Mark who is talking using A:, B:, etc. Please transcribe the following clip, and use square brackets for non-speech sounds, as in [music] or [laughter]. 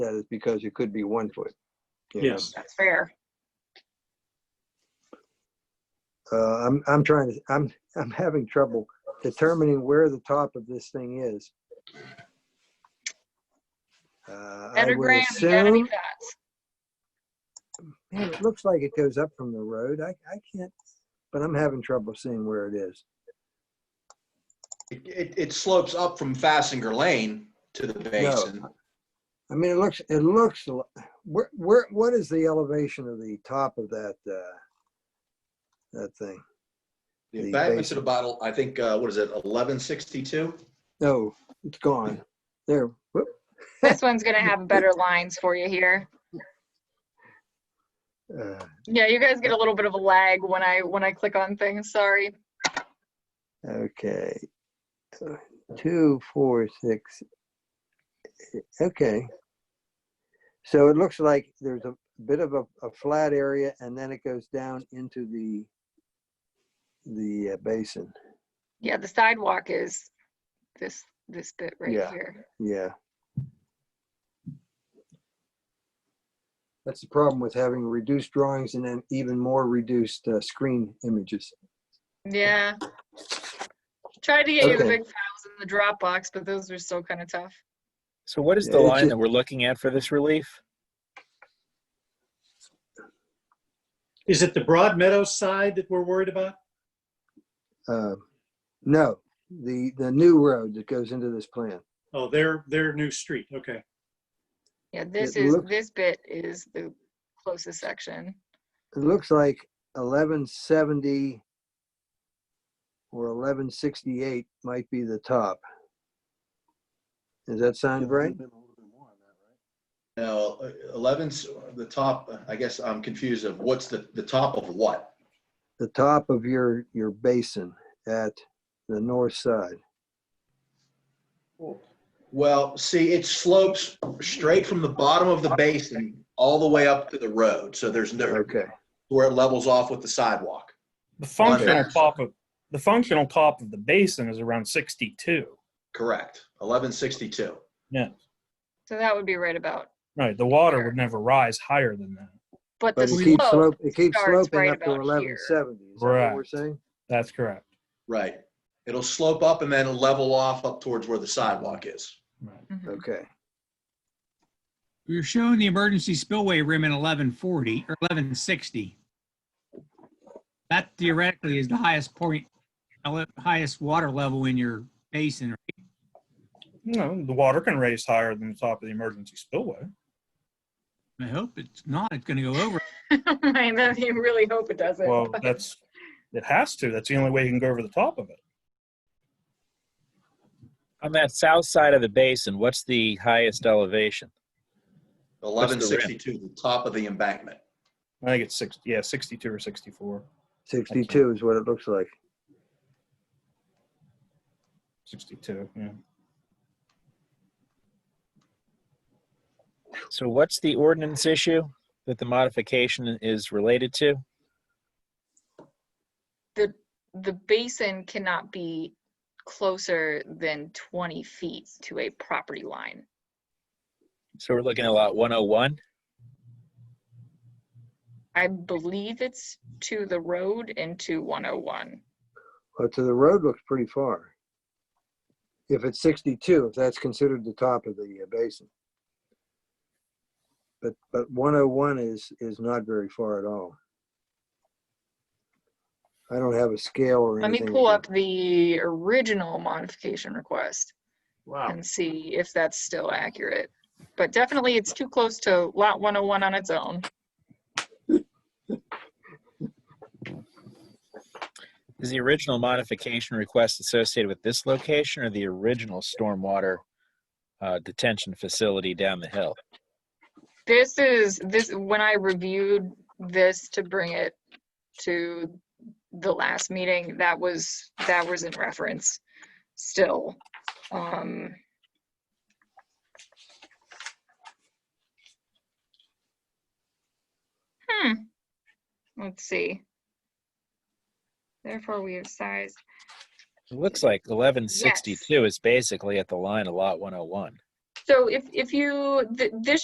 A: that is because it could be one foot. you know.
B: Yes,
C: That's fair.
A: Uh, I'm, I'm trying to, I'm, I'm having trouble determining where the top of this thing is. Uh, I would
C: Pentagram, you gotta be
A: assume,
C: fast.
A: man, it looks like it goes up from the road. I, I can't, but I'm having trouble seeing where it is.
D: It, it, it slopes up from Fassinger Lane to the basin.
A: I mean, it looks, it looks, a lo- where, where, what is the elevation of the top of that, uh, that thing?
D: The
A: The
D: embankments at about, I think, uh, what is it, 1162?
A: No, Oh, it's gone. There, whoop,
C: This one's
A: [laughs]
C: gonna have better lines for you here.
A: uh,
C: Yeah, you guys get a little bit of a lag when I, when I click on things, sorry.
A: Okay. Uh, Two, four, six. eight. Okay. So it looks like there's a bit of a, a flat area and then it goes down into the, the uh, basin.
C: Yeah, the sidewalk is this, this bit right
A: Yeah.
C: here.
A: Yeah. That's the problem with having reduced drawings and then even more reduced uh, screen images.
C: Yeah. Tried to get you the
A: Okay.
C: big files in the Dropbox, but those were still kind of tough.
B: so what is
A: Yeah,
B: the
A: it's
B: line
A: just-
B: that we're looking at for this relief?
E: Is it the Broad Meadows side that we're worried about?
A: Uh, No, the, the new road that goes into this plan.
E: Oh, their, their new street, okay.
C: Yeah, this
A: It
C: is,
A: looks-
C: this bit is the closest section.
A: It looks like eleven seventy or eleven sixty-eight might be the top. Does that sound right?
D: No, 11's the top, I guess I'm confused of what's the, the top of what?
A: The top of your, your basin at the north side.
D: Well, see, it slopes straight from the bottom of the basin all the way up to the road. So there's no,
A: Okay,
D: where it levels off with the sidewalk.
F: The functional
D: Okay.
F: pop of the functional pop of the basin is around 62.
D: Correct. 1162.
C: So that would be right about,
F: Right, the water would never rise higher than that.
C: but the
A: but it keeps
C: slope,
A: slope, it keeps
C: starts
A: sloping
C: right
A: up to
C: about
A: eleven
C: here.
A: seventy. Is that what we're
F: Right.
A: saying?
F: That's correct.
D: Right. It'll slope up and then level off up towards where the sidewalk is.
F: Right.
C: Mhm.
A: Okay,
G: We We're showing the emergency spillway rim in 1140 or 1160. That theoretically is the highest point, ele- highest water level in your basin.
F: You know, the water can raise higher than the top of the emergency spillway.
G: I hope it's not, it's going to go over.
C: [laughs] I know, you really hope it doesn't.
F: Well,
C: but-
F: that's it has to. That's the only way you can go over the top of it.
B: On that south side of the basin, what's the highest elevation?
D: 1162, the top of the embankment.
F: I think it's six, yeah, 62 or 64,
A: sixty-two is what it looks like.
F: 62. Yeah.
B: So what's the ordinance issue that the modification is related to?
C: the, the basin cannot be closer than 20 feet to a property line.
B: So we're looking at lot 101.
C: I believe it's to the road and to 101.
A: Well, to the road looks pretty far. If it's sixty-two, if that's considered the top of the uh, basin. But, but one oh one is, is not very far at all. I don't have a scale or
C: Let me
A: anything.
C: pull up the original modification request
E: Wow.
C: and see if that's still accurate. But definitely, it's too close to lot 101 on its own.
B: Is the original modification request associated with this location or the original stormwater uh, detention facility down the hill?
C: This is, this, when I reviewed this to bring it to the last meeting, that was, that was in reference still. Um, Hmm. Let's see. Therefore, we have sized.
B: It looks like 1162 is basically at the line of lot 101.
C: So if, if you, th- this